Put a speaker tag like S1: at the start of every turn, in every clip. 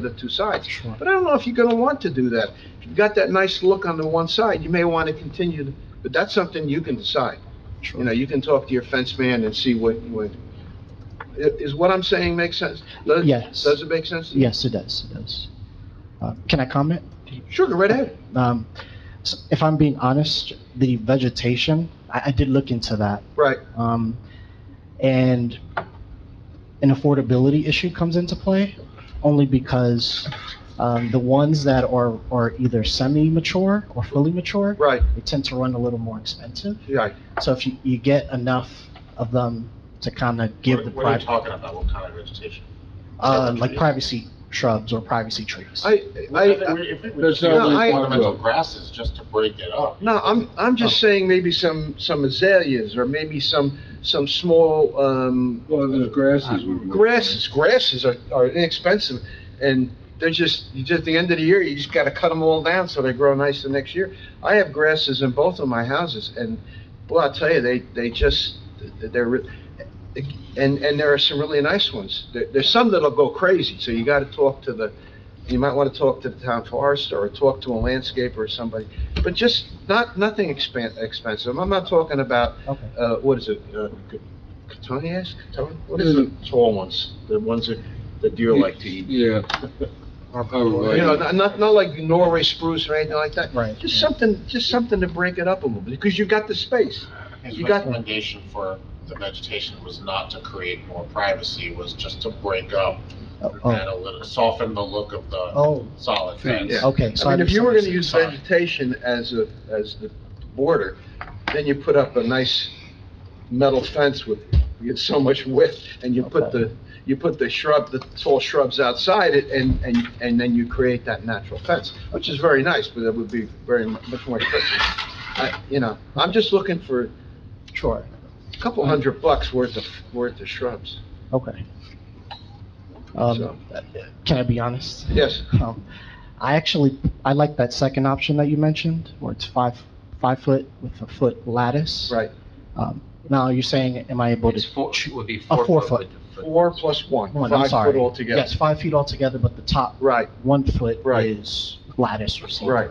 S1: the two sides.
S2: Sure.
S1: But I don't know if you're gonna want to do that. If you've got that nice look on the one side, you may want to continue, to- but that's something you can decide. You know, you can talk to your fence man and see what, what, i- is what I'm saying make sense? Does-
S2: Yes.
S1: Does it make sense?
S2: Yes, it does, it does. Uh, Can I comment?
S1: Sure, go right ahead.
S2: Um, s- If I'm being honest, the vegetation, I, I did look into that.
S1: Right,
S2: Um, And an affordability issue comes into play, only because um, the ones that are, are either semi-mature or fully mature,
S1: right,
S2: they tend to run a little more expensive.
S1: right.
S2: So if you, you get enough of them to kind of give the
S3: What are
S2: private,
S3: you talking about, what kind of vegetation?
S2: uh, like privacy shrubs or privacy trees.
S1: I, I, I-
S3: There's
S1: no link to it.
S3: Ornamental grasses, just to break it up.
S1: No, I'm, I'm just saying maybe some, some azaleas or maybe some, some small, um,
S4: Well, the
S2: Uh,
S4: grasses would work.
S1: grasses. Grasses are, are inexpensive and they're just, you just, at the end of the year, you just gotta cut them all down so they grow nice the next year. I have grasses in both of my houses and, boy, I'll tell you, they, they just, they're, re- and, and there are some really nice ones. There, there's some that'll go crazy, so you gotta talk to the, you might wanna talk to the town forester or talk to a landscaper or somebody. But just not, nothing expan, expensive. I'm not talking about,
S2: Okay.
S1: uh, what is it, uh, Catonias? Caton- What is the tall ones? The ones that, that deer like to eat?
S4: Yeah, Oh, right.
S1: You know, not- not, not like Norway spruce or anything like that.
S2: Right,
S1: Just
S2: yeah.
S1: something, just something to break it up a little bit, because you've got the space.
S3: His
S1: You got-
S3: recommendation for the vegetation was not to create more privacy, was just to break up
S2: Oh,
S3: and
S2: oh,
S3: a little, soften the look of the
S2: Oh,
S3: solid
S4: Fence.
S3: fence.
S1: Yeah.
S2: okay. so
S1: I mean, if you were gonna
S2: misunderstood.
S1: use
S3: Sorry.
S1: vegetation as a, as the border, then you put up a nice metal fence with, you get so much width, and you put
S2: Okay.
S1: the, you put the shrub, the tall shrubs outside it, and, and, and then you create that natural fence, which is very nice, but it would be very, mu- much more expensive. I, you know, I'm just looking for a
S2: Sure,
S1: couple hundred bucks worth of, worth of shrubs,
S2: okay.
S1: So-
S2: Um, can I be honest?
S1: yes.
S2: Um, I actually, I like that second option that you mentioned, where it's five, five foot with a foot lattice.
S1: Right,
S2: Um, Now, you're saying, am I able to?
S5: It's four, it would be
S2: A
S5: four
S2: four
S5: foot.
S2: foot.
S5: with the foot.
S1: four plus one,
S2: One, I'm
S1: five
S2: sorry.
S1: foot altogether.
S2: Yes, five feet altogether, but the top
S1: Right,
S2: one foot
S1: Right.
S2: is lattice or something.
S1: right.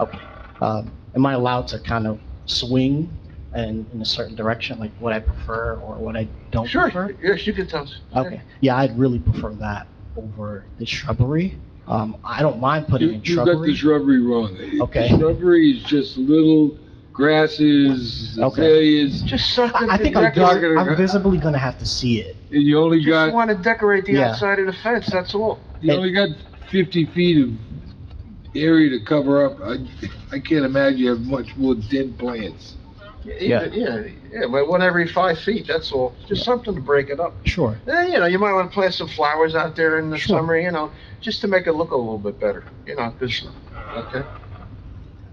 S2: Okay. Um, Am I allowed to kind of swing and in a certain direction, like what I prefer or what I don't prefer?
S1: Sure, yes, you can tell us.
S2: Okay, yeah, I'd really prefer that over the shrubbery. Um, I don't mind
S4: you
S2: putting in
S4: you got the
S2: shrubbery.
S4: shrubbery wrong. The
S2: Okay.
S4: Shrubbery is just little grasses,
S2: Okay.
S4: azaleas,
S1: Just something.
S2: I I think
S1: to
S2: I'm
S4: You're not
S1: decorate.
S2: visi-
S4: gonna-
S2: I'm visibly gonna have to see it.
S4: and you only
S1: Just
S4: got,
S1: want to decorate the
S2: Yeah.
S1: outside of the fence, that's all.
S4: you only got fifty feet of area to cover up. I, I can't imagine you have much more dead plants.
S1: Yeah, yeah, yeah, but one every five feet, that's all. Just something to break it up.
S2: Sure,
S1: And, you know, you might want to plant some flowers out there in the
S2: Sure.
S1: summer, you know, just to make it look a little bit better, you know, 'cause- okay?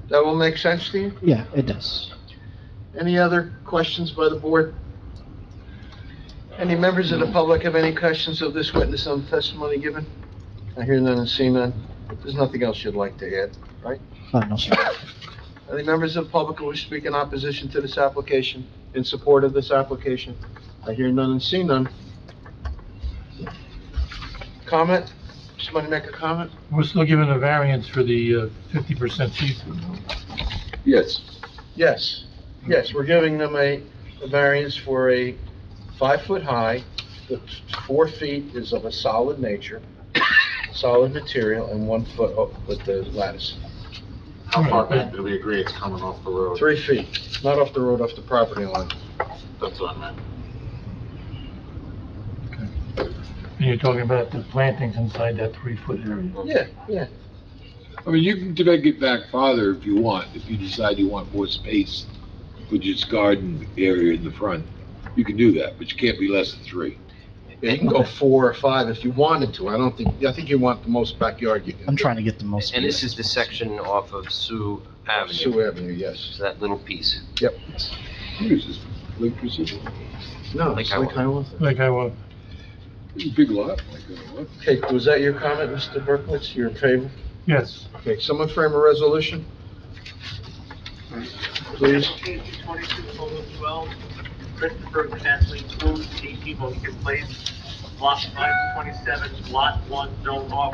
S1: That will make sense to you?
S2: yeah, it does.
S1: Any other questions by the board? Any members of the public have any questions of this witness on testimony given? I hear none and see none. There's nothing else you'd like to add?
S2: Oh, no, sir.
S1: Any members of the public who wish to speak in opposition to this application, in support of this application? I hear none and see none. Comment? Somebody make a comment?
S6: We're still given a variance for the uh, fifty percent see-through.
S4: Yes.
S1: Yes, yes, we're giving them a a variance for a five-foot-high, the four feet is of a solid nature, solid material, and one foot up with the lattice.
S3: How far back do we agree it's coming off the road?
S1: Three feet, not off the road, off the property line.
S3: That's what I meant.
S6: And you're talking about the plantings inside that three-foot area.
S1: Yeah, yeah,
S4: I mean, you can take it back farther if you want, if you decide you want more space for just garden area in the front. You can do that, but you can't be less than three.
S1: Yeah, you can go four or five if you wanted to, I don't think, I think you want the most backyard you can.
S2: I'm trying to get the most.
S5: And this is the section off of Sioux Avenue,
S1: Sue Avenue, yes.
S5: so that little piece.
S4: What is this, Lake Precision?
S1: No,
S5: Like
S1: it's
S5: I
S1: like I was.
S6: Like I was,
S4: Big lot, like, uh, what?
S1: Okay, was that your comment, Mr. Berkowitz, you're in favor?
S6: yes,
S1: Okay, someone frame a resolution? Please.
S7: Page 22, Bullet 12, Christopher Bentley, Blue, 18 Lincoln Place, Block 527, Lot 1, Zone R